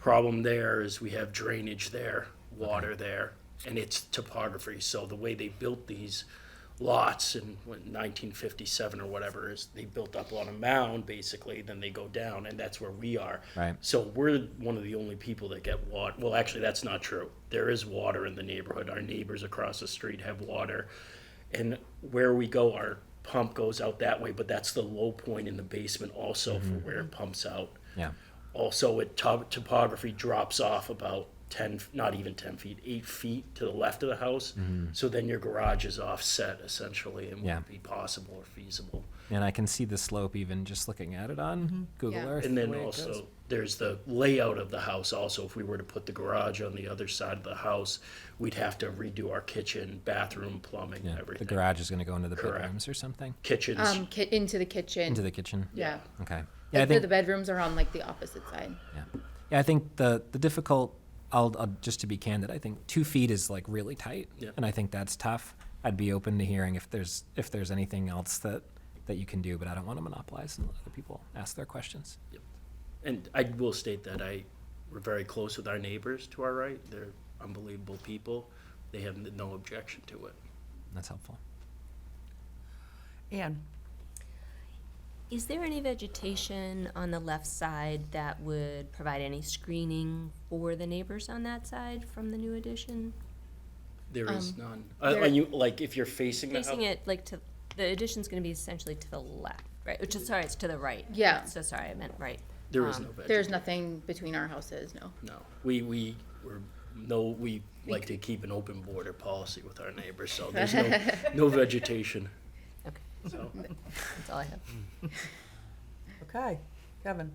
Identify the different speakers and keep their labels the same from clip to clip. Speaker 1: Problem there is we have drainage there, water there, and it's topography. So the way they built these lots in what, 1957 or whatever is they built up on a mound basically, then they go down, and that's where we are.
Speaker 2: Right.
Speaker 1: So we're one of the only people that get water. Well, actually, that's not true. There is water in the neighborhood. Our neighbors across the street have water. And where we go, our pump goes out that way, but that's the low point in the basement also for where it pumps out.
Speaker 2: Yeah.
Speaker 1: Also, it top, topography drops off about 10, not even 10 feet, 8 feet to the left of the house. So then your garage is offset essentially and
Speaker 2: Mm-hmm. Yeah.
Speaker 1: won't be possible or feasible.
Speaker 2: And I can see the slope even just looking at it on Google
Speaker 3: Mm-hmm. Yeah.
Speaker 2: Earth.
Speaker 1: And then
Speaker 2: way it goes.
Speaker 1: also, there's the layout of the house also. If we were to put the garage on the other side of the house, we'd have to redo our kitchen, bathroom, plumbing,
Speaker 2: yeah, the
Speaker 1: everything.
Speaker 2: garage is going to go into the
Speaker 1: Correct.
Speaker 2: bedrooms or something
Speaker 1: Kitchens,
Speaker 3: Um, ki- into the kitchen.
Speaker 2: into the kitchen.
Speaker 3: yeah.
Speaker 2: Okay. Yeah,
Speaker 3: Like
Speaker 2: I
Speaker 3: the-
Speaker 2: think
Speaker 3: the bedrooms are on like the opposite side.
Speaker 2: Yeah, yeah. I think the the difficult. I'll, I'll just to be candid. I think two feet is like really tight,
Speaker 1: Yeah.
Speaker 2: and I think that's tough. I'd be open to hearing if there's if there's anything else that that you can do, but I don't want to monopolize and let other people ask their questions.
Speaker 1: and I will state that I, we're very close with our neighbors to our right. They're unbelievable people. They have n- no objection to it.
Speaker 2: That's helpful.
Speaker 4: Anne,
Speaker 5: Is there any vegetation on the left side that would provide any screening for the neighbors on that side from the new addition?
Speaker 1: There is none. Uh,
Speaker 3: Um, there-
Speaker 1: Are you, like, if you're facing the
Speaker 5: Facing
Speaker 1: house?
Speaker 5: it like to, the addition's gonna be essentially to the left, right? Which is, sorry, it's to the right.
Speaker 3: Yeah.
Speaker 5: So sorry, I meant right.
Speaker 1: There is no vegetation.
Speaker 3: um, There's nothing between our houses, no.
Speaker 1: No, we, we, we're, no, we like to keep an open border policy with our neighbors, so there's no, no vegetation.
Speaker 5: Okay.
Speaker 1: So,
Speaker 5: That's all I have.
Speaker 4: okay, Kevin,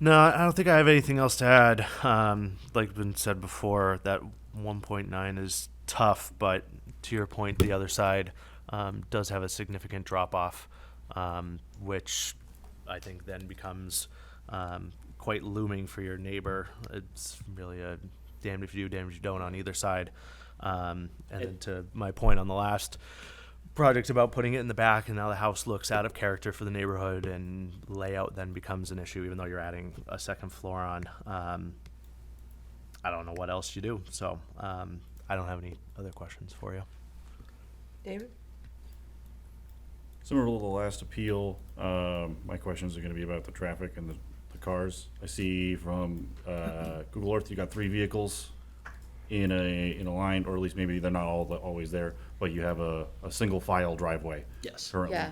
Speaker 6: No, I don't think I have anything else to add. Um, like been said before, that 1.9 is tough, but to your point, the other side um, does have a significant drop off, um, which I think then becomes um, quite looming for your neighbor. It's really a damned if you do, damned if you don't on either side. Um, and then to my point on the last project about putting it in the back and now the house looks out of character for the neighborhood and layout then becomes an issue even though you're adding a second floor on um, i don't know what else you do so um, i don't have any other questions for you
Speaker 4: David?
Speaker 7: Similar to the last appeal, um, my questions are gonna be about the traffic and the, the cars. I see from, uh, Google Earth, you got three vehicles in a, in a line, or at least maybe they're not all, always there, but you have a, a single file driveway.
Speaker 1: Yes.
Speaker 7: Currently.
Speaker 3: Yeah.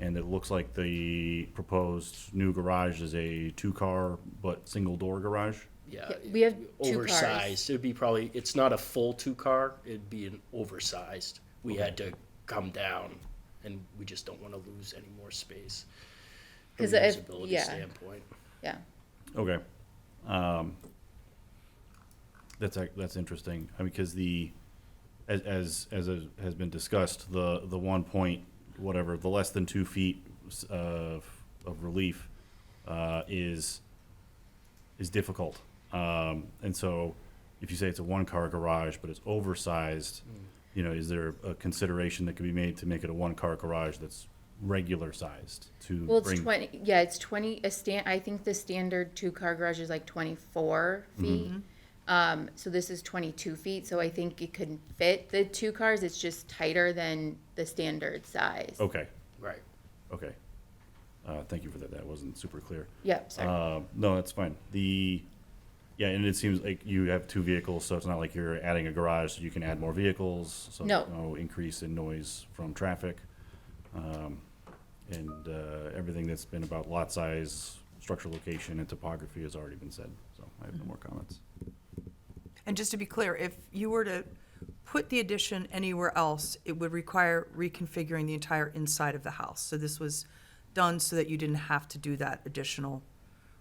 Speaker 7: And it looks like the proposed new garage is a two-car but single-door garage.
Speaker 1: yeah.
Speaker 3: Yeah, we have two cars.
Speaker 1: Oversized, it'd be probably, it's not a full two-car, it'd be an oversized. We had to come down, and we just don't wanna lose any more space. From
Speaker 3: 'Cause if-
Speaker 1: usability
Speaker 3: yeah.
Speaker 1: standpoint.
Speaker 3: Yeah.
Speaker 7: Okay. Um, that's ac- that's interesting. I mean, because the as as as a- has been discussed, the the one point whatever the less than two feet s- of of relief uh, is is difficult. Um, and so, if you say it's a one car garage, but it's oversized, you know, is there a consideration that could be made to make it a one car garage that's regular sized to
Speaker 3: Well, it's
Speaker 7: bring
Speaker 3: twenty, yeah, it's twenty, a stand, I think the standard two-car garage is like twenty-four
Speaker 2: Mm-hmm.
Speaker 3: feet. Um, so this is twenty-two feet, so I think it could fit the two cars, it's just tighter than the standard size.
Speaker 2: Oh.
Speaker 7: okay
Speaker 1: Right.
Speaker 7: Okay. Uh, Thank you for that. That wasn't super clear.
Speaker 3: Yep, sorry.
Speaker 7: Uh, No, that's fine. The, yeah, and it seems like you have two vehicles, so it's not like you're adding a garage, so you can add more vehicles. so
Speaker 3: No.
Speaker 7: No increase in noise from traffic. Um, And uh, everything that's been about lot size, structural location, and topography has already been said, so I
Speaker 3: Mm-hmm.
Speaker 7: have no more comments.
Speaker 4: And just to be clear, if you were to put the addition anywhere else, it would require reconfiguring the entire inside of the house. So this was done so that you didn't have to do that additional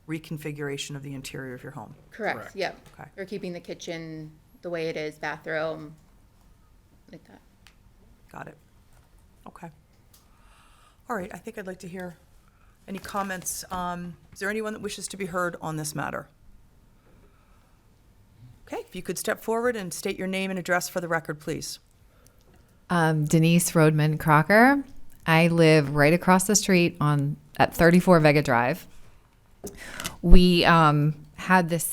Speaker 4: reconfiguration of the interior of your home.
Speaker 3: Correct,
Speaker 1: correct.
Speaker 3: yep.
Speaker 4: Okay.
Speaker 3: We're keeping the kitchen the way it is, bathroom, like that.
Speaker 4: Got it. Okay. All right, I think I'd like to hear any comments. Um, Is there anyone that wishes to be heard on this matter? Okay, if you could step forward and state your name and address for the record, please.
Speaker 8: Um, Denise Rodman Crocker. I live right across the street on at 34 Vega Drive. We um, had this